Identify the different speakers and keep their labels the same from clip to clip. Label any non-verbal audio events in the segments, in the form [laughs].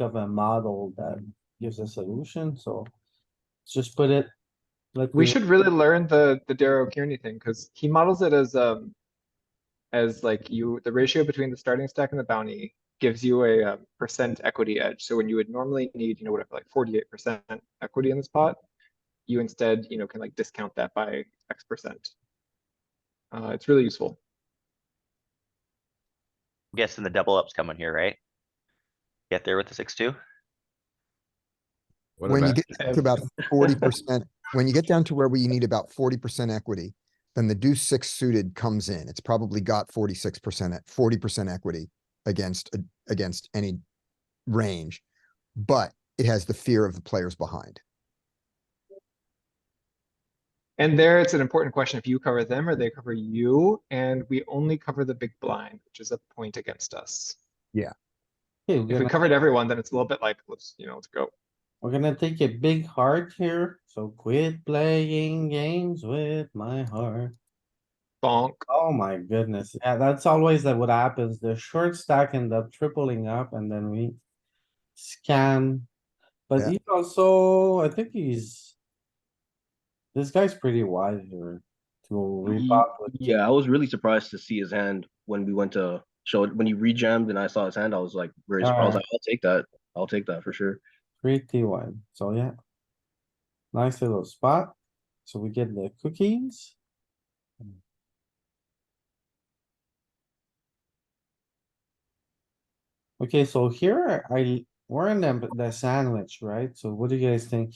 Speaker 1: of a model that gives a solution, so. Just put it. like
Speaker 2: We should really learn the, the Darrow Kearney thing, because he models it as, um. As like you, the ratio between the starting stack and the bounty gives you a um, percent equity edge, so when you would normally need, you know, whatever, like forty-eight percent equity in this pot. You instead, you know, can like discount that by X percent. Uh, it's really useful.
Speaker 3: I'm guessing the double up's coming here, right? Get there with the six, two?
Speaker 4: When you get down
Speaker 2: Ev-
Speaker 4: to about forty percent, when you get down to where we need about forty percent equity, then the deuce six suited comes in. It's probably got forty-six percent at forty percent equity against, a- against any range. But it has the fear of the players behind.
Speaker 2: And there, it's an important question if you cover them or they cover you, and we only cover the big blind, which is a point against us.
Speaker 1: Okay, we're
Speaker 2: If we
Speaker 1: gonna,
Speaker 2: covered everyone, then it's a little bit like, let's, you know, let's go.
Speaker 1: we're gonna take a big heart here, so quit playing games with my heart.
Speaker 2: Bonk.
Speaker 1: Oh my goodness, yeah, that's always that what happens, the short stack end up tripling up and then we scan. But
Speaker 4: Yeah.
Speaker 1: he's also, I think he's. This guy's pretty wide here to repop with
Speaker 5: Yeah, I was really surprised to see his hand when we went to show it when he rejammed and I saw his hand. I was like, very surprised. I
Speaker 1: Alright.
Speaker 5: was like, I'll take that. I'll take that for sure.
Speaker 1: pretty wide, so yeah. Nice little spot, so we get the cookies. Okay, so here I, we're in the, the sandwich, right? So what do you guys think?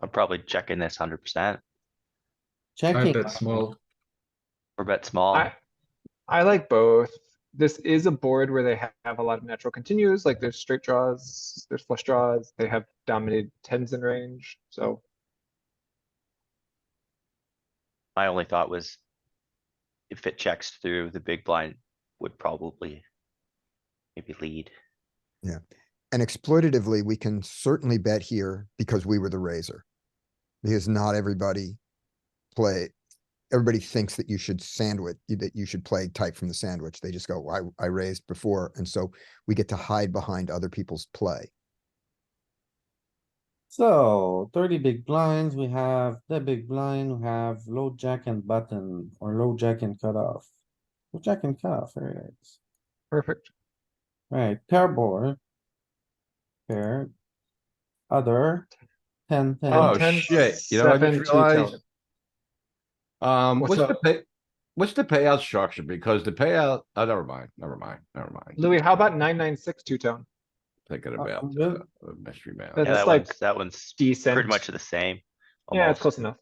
Speaker 3: I'm probably checking this hundred percent
Speaker 6: I
Speaker 1: Checking,
Speaker 6: bet small.
Speaker 3: or bet small.
Speaker 2: I, I like both. This is a board where they ha- have a lot of natural continues, like there's straight draws, there's flush draws, they have dominated tens in range, so.
Speaker 3: My only thought was if it checks through, the big blind would probably maybe lead.
Speaker 4: And exploitatively, we can certainly bet here because we were the raiser. Because not everybody play, everybody thinks that you should sandwich, that you should play tight from the sandwich. They just go, I, I raised before. And so we get to hide behind other people's play.
Speaker 1: so thirty big blinds, we have the big blind, we have low jack and button, or low jack and cutoff. Low jack and cutoff, there it is.
Speaker 2: Perfect.
Speaker 1: Right, pair board. Pair. Other. Ten, ten.
Speaker 6: Oh,
Speaker 2: 10,
Speaker 6: shit, you know, I
Speaker 2: 7,
Speaker 6: just
Speaker 2: 2 tele.
Speaker 6: realized- Um,
Speaker 2: What's
Speaker 6: what's the
Speaker 2: up?
Speaker 6: pay, what's the payout structure? Because the payout, oh, never mind, never mind, never mind.
Speaker 2: Louis, how about nine, nine, six, two tone?
Speaker 6: Thinking
Speaker 1: Uh,
Speaker 6: about
Speaker 1: yeah.
Speaker 6: uh, a mystery
Speaker 2: Yeah,
Speaker 3: Yeah,
Speaker 6: man.
Speaker 2: that's
Speaker 3: that
Speaker 2: like
Speaker 3: one's, that one's
Speaker 2: Decent.
Speaker 3: pretty much the same.
Speaker 2: Yeah, it's
Speaker 3: almost.
Speaker 2: close enough.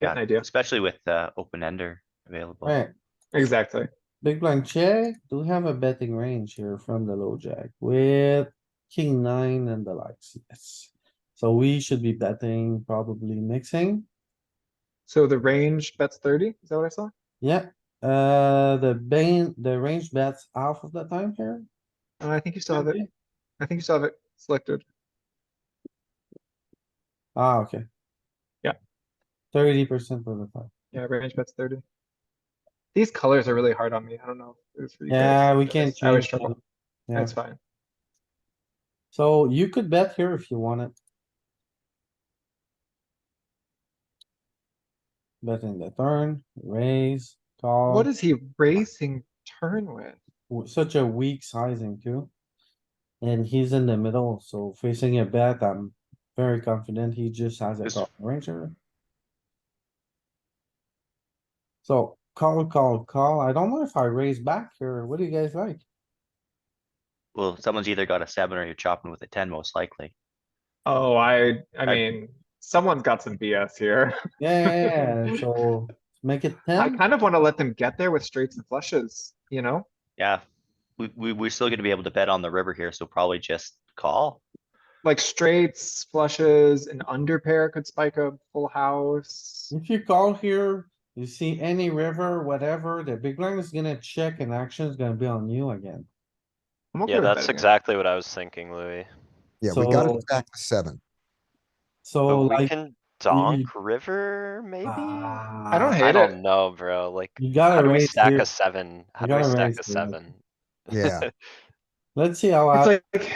Speaker 2: Get an
Speaker 3: Yeah,
Speaker 2: idea.
Speaker 3: Especially with, uh, open ender available.
Speaker 1: Right,
Speaker 2: Exactly.
Speaker 1: big blind check. Do we have a betting range here from the low jack with king nine and the likes? Yes. So we should be betting, probably mixing.
Speaker 2: So the range bets thirty, is that what I saw?
Speaker 1: Yeah, uh, the bane, the range bets half of the time here.
Speaker 2: Uh, I think you still have it. I think you still have it selected.
Speaker 1: Ah, okay.
Speaker 2: Yeah.
Speaker 1: Thirty percent of the time.
Speaker 2: Yeah, range bets thirty. These colors are really hard on me. I don't know. if it was for you guys.
Speaker 1: Yeah, we can't
Speaker 2: I always
Speaker 1: change.
Speaker 2: struggle.
Speaker 1: that. Yeah,
Speaker 2: That's fine.
Speaker 1: so you could bet here if you wanted. Betting the turn, raise, call.
Speaker 2: What is he racing turn with?
Speaker 1: w- Such a weak sizing too. And he's in the middle, so facing a bet, I'm very confident he just has a
Speaker 3: This-
Speaker 1: call ranger. So call, call, call. I don't know if I raise back here. What do you guys like?
Speaker 3: Well, someone's either got a seven or you're chopping with a ten most likely.
Speaker 2: Oh, I, I
Speaker 3: I-
Speaker 2: mean, someone's got some BS here. [laughs]
Speaker 1: Yeah, Yeah, yeah, so make it
Speaker 2: I
Speaker 1: ten.
Speaker 2: kind of want to let them get there with straights and flushes, you know?
Speaker 3: Yeah. We, we, we're still gonna be able to bet on the river here, so probably just call.
Speaker 2: Like straights, flushes, an under pair could spike a full house.
Speaker 1: If you call here, you see any river, whatever, the big blind is gonna check and action is gonna be on you again.
Speaker 2: I'm okay
Speaker 7: Yeah,
Speaker 2: with
Speaker 7: that's
Speaker 2: betting it.
Speaker 7: exactly what I was thinking, Louis.
Speaker 4: Yeah, we gotta
Speaker 1: So-
Speaker 4: stack the seven.
Speaker 1: So
Speaker 7: But we
Speaker 1: like.
Speaker 7: can donk river, maybe? I
Speaker 1: I
Speaker 2: don't hate it.
Speaker 7: don't know, bro, like,
Speaker 1: ah, You
Speaker 7: how
Speaker 1: gotta
Speaker 7: do we
Speaker 1: raise
Speaker 7: stack
Speaker 1: here.
Speaker 7: a seven? How
Speaker 1: You
Speaker 7: do we
Speaker 1: gotta
Speaker 7: stack
Speaker 1: raise
Speaker 7: a
Speaker 1: here.
Speaker 7: seven?
Speaker 4: Yeah.
Speaker 8: Let's see how.
Speaker 1: It's
Speaker 8: I-
Speaker 1: like,